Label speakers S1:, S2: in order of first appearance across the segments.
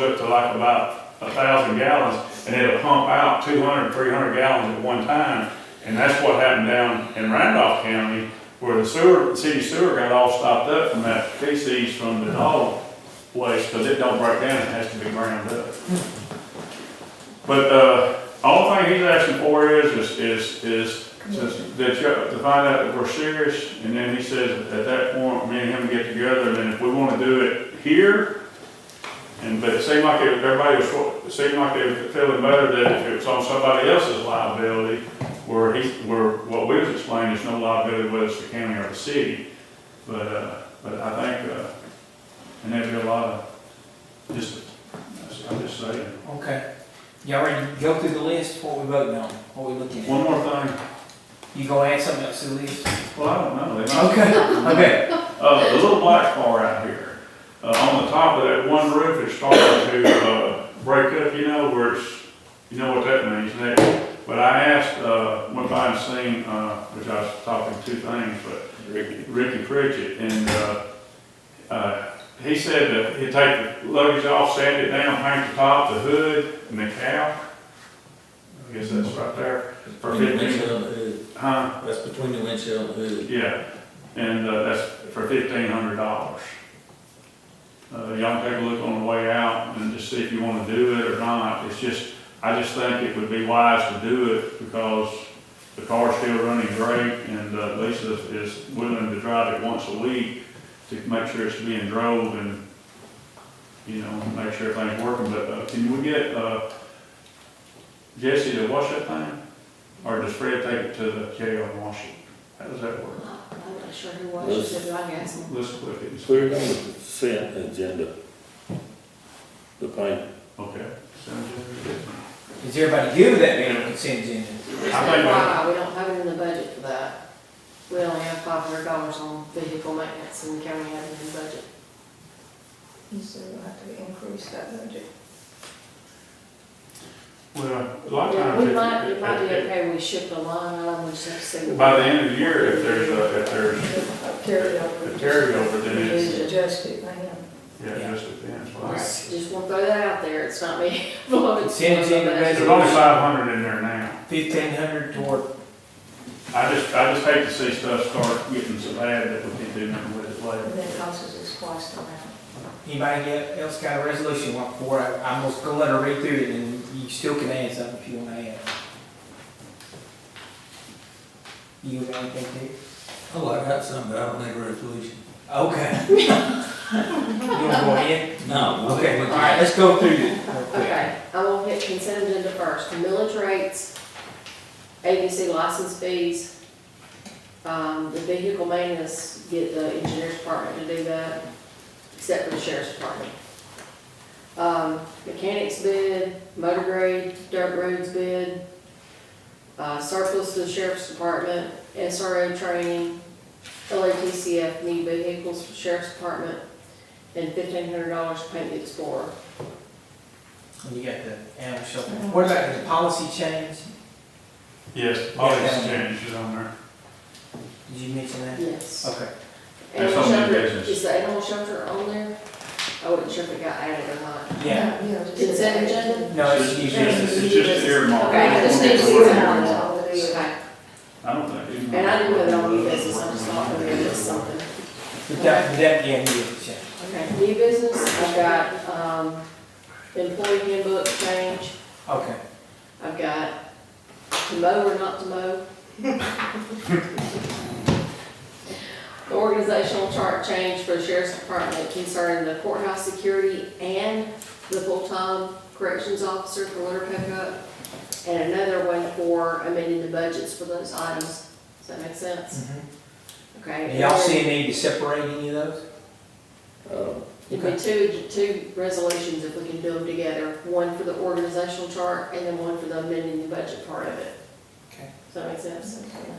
S1: up to like about a thousand gallons, and it'll pump out 200, 300 gallons at one time. And that's what happened down in Randolph County, where the sewer, city sewer got all stopped up from that feces from the dog place, because it don't break down, it has to be ground up. But, uh, all thing he's asking for is, is, is, is to- that you, to find out that we're serious, and then he says, at that point, me and him get together, and then if we wanna do it here, and, but it seemed like it- everybody was, sort- it seemed like they were feeling better that if it was on somebody else's liability, where he, where, what we was explaining is no liability, whether it's the county or the city. But, uh, but I think, uh, and there'd be a lot of, just, I'm just saying.
S2: Okay. Y'all ready to go through the list, what we voting on, what we looking at?
S1: One more thing,
S2: You gonna add something else to the list?
S1: well, I don't know, they might
S2: Okay, okay.
S1: Uh, the little black bar out here, uh, on the top of that one roof, it's starting to, uh, break up, you know, where it's, you know what that means next. But I asked, uh, went by and seen, uh, which I was talking two things, but Ricky Pritchett, and, uh, uh, he said that he'd take the luggage off, sand it down, paint the top, the hood, and the cow. I guess that's right there, for
S3: Between the
S1: fifteen,
S3: windshield and the hood,
S1: huh?
S3: that's between the windshield and the hood.
S1: Yeah, and uh, that's for fifteen hundred dollars. Uh, y'all can take a look on the way out and just see if you wanna do it or not, it's just, I just think it would be wise to do it because the car's still running great and uh, Lisa is willing to drive it once a week to make sure it's being drove and, you know, make sure everything's working, but uh, can we get, uh, Jesse to wash that thing? Or does Fred take it to the jail and wash it? How does that work?
S4: I'm not sure who watches it, but I guess.
S1: Let's look at this.
S5: Clear on the consent agenda. The paint.
S1: Okay.
S2: Is everybody good with that being on consent agenda?
S4: There's no why, we don't have it in the budget for that. We only have five hundred dollars on vehicle maintenance and county admin budget.
S6: So we'll have to increase that budget.
S1: Well, a lot of times.
S4: We
S1: if-
S4: might, it might be
S1: if- if-
S4: okay, we shift the line item, we just have to see.
S1: By the end of the year, if there's a, if there's
S6: Carry
S1: a
S6: over.
S1: carryover, then it's,
S6: Adjust it, I know.
S1: yeah, it just depends.
S4: All
S1: Well,
S4: right, Just wanna throw that out there, it's not me. blowing it.
S2: Send it in the
S1: There's only five hundred in there now.
S2: Fifteen hundred toward,
S1: I just, I just hate to see stuff start getting so bad that we can do nothing with it later.
S6: And then it costs us twice the amount.
S2: anybody else got a resolution want for it? I'm just gonna let her read through it and you still can add something if you wanna add. You got anything to?
S3: Oh, I got some, but I don't need a resolution.
S2: Okay. You wanna go ahead?
S3: No.
S2: Okay, all right, let's go through it real quick.
S4: Okay, I will hit consent agenda first, millage rates, ABC license fees, um, the vehicle maintenance, get the engineer's department to do that, except for the sheriff's department. Um, mechanics bid, motor grade, dirt roads bid, uh, surplus to the sheriff's department, SRO training, LATCF new vehicles for sheriff's department, and fifteen hundred dollars to paint the Explorer.
S2: And You got the animal shelter. What about the policy change?
S1: Yes, all these changes on there.
S2: Did you mention that?
S4: Yes.
S2: Okay.
S1: There's
S4: Animal
S1: so many
S4: shelter-
S1: business.
S4: Is the animal shelter on there? I wasn't sure if it got added or not.
S2: Yeah,
S6: Yeah, just-
S4: Consent agenda?
S2: no, it's new
S1: It's
S2: business.
S1: just- It's just earmarked.
S4: Okay, I just need to see
S6: Yeah, it's all it is.
S4: Okay.
S1: I don't think. you-
S4: And I didn't know that on new business, I just thought maybe it was something.
S2: But that, but that, yeah, new business change.
S4: Okay, new business, I've got, um, employee handbook change,
S2: Okay.
S4: I've got to mow or not to mow. The organizational chart change for the sheriff's department concerning the courthouse security and the full-time corrections officer for litter pickup. And another one for amending the budgets for those items. Does that make sense? Okay.
S2: And y'all see a need to separate any of those?
S5: Uh,
S4: It'd be two, two resolutions if we can do them together, one for the organizational chart and then one for the amending the budget part of it.
S2: Okay.
S4: Does that make sense?
S6: Okay.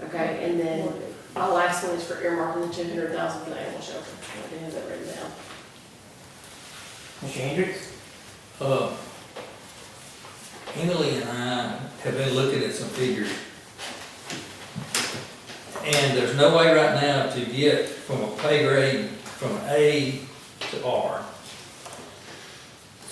S4: Okay, and then my last one is for earmarking the two hundred thousand for the animal shelter. I didn't have that written down.
S2: Mr. Hendricks?
S3: Uh, Emily and I have been looking at some figures. And there's no way right now to get from a pay grade from A to R.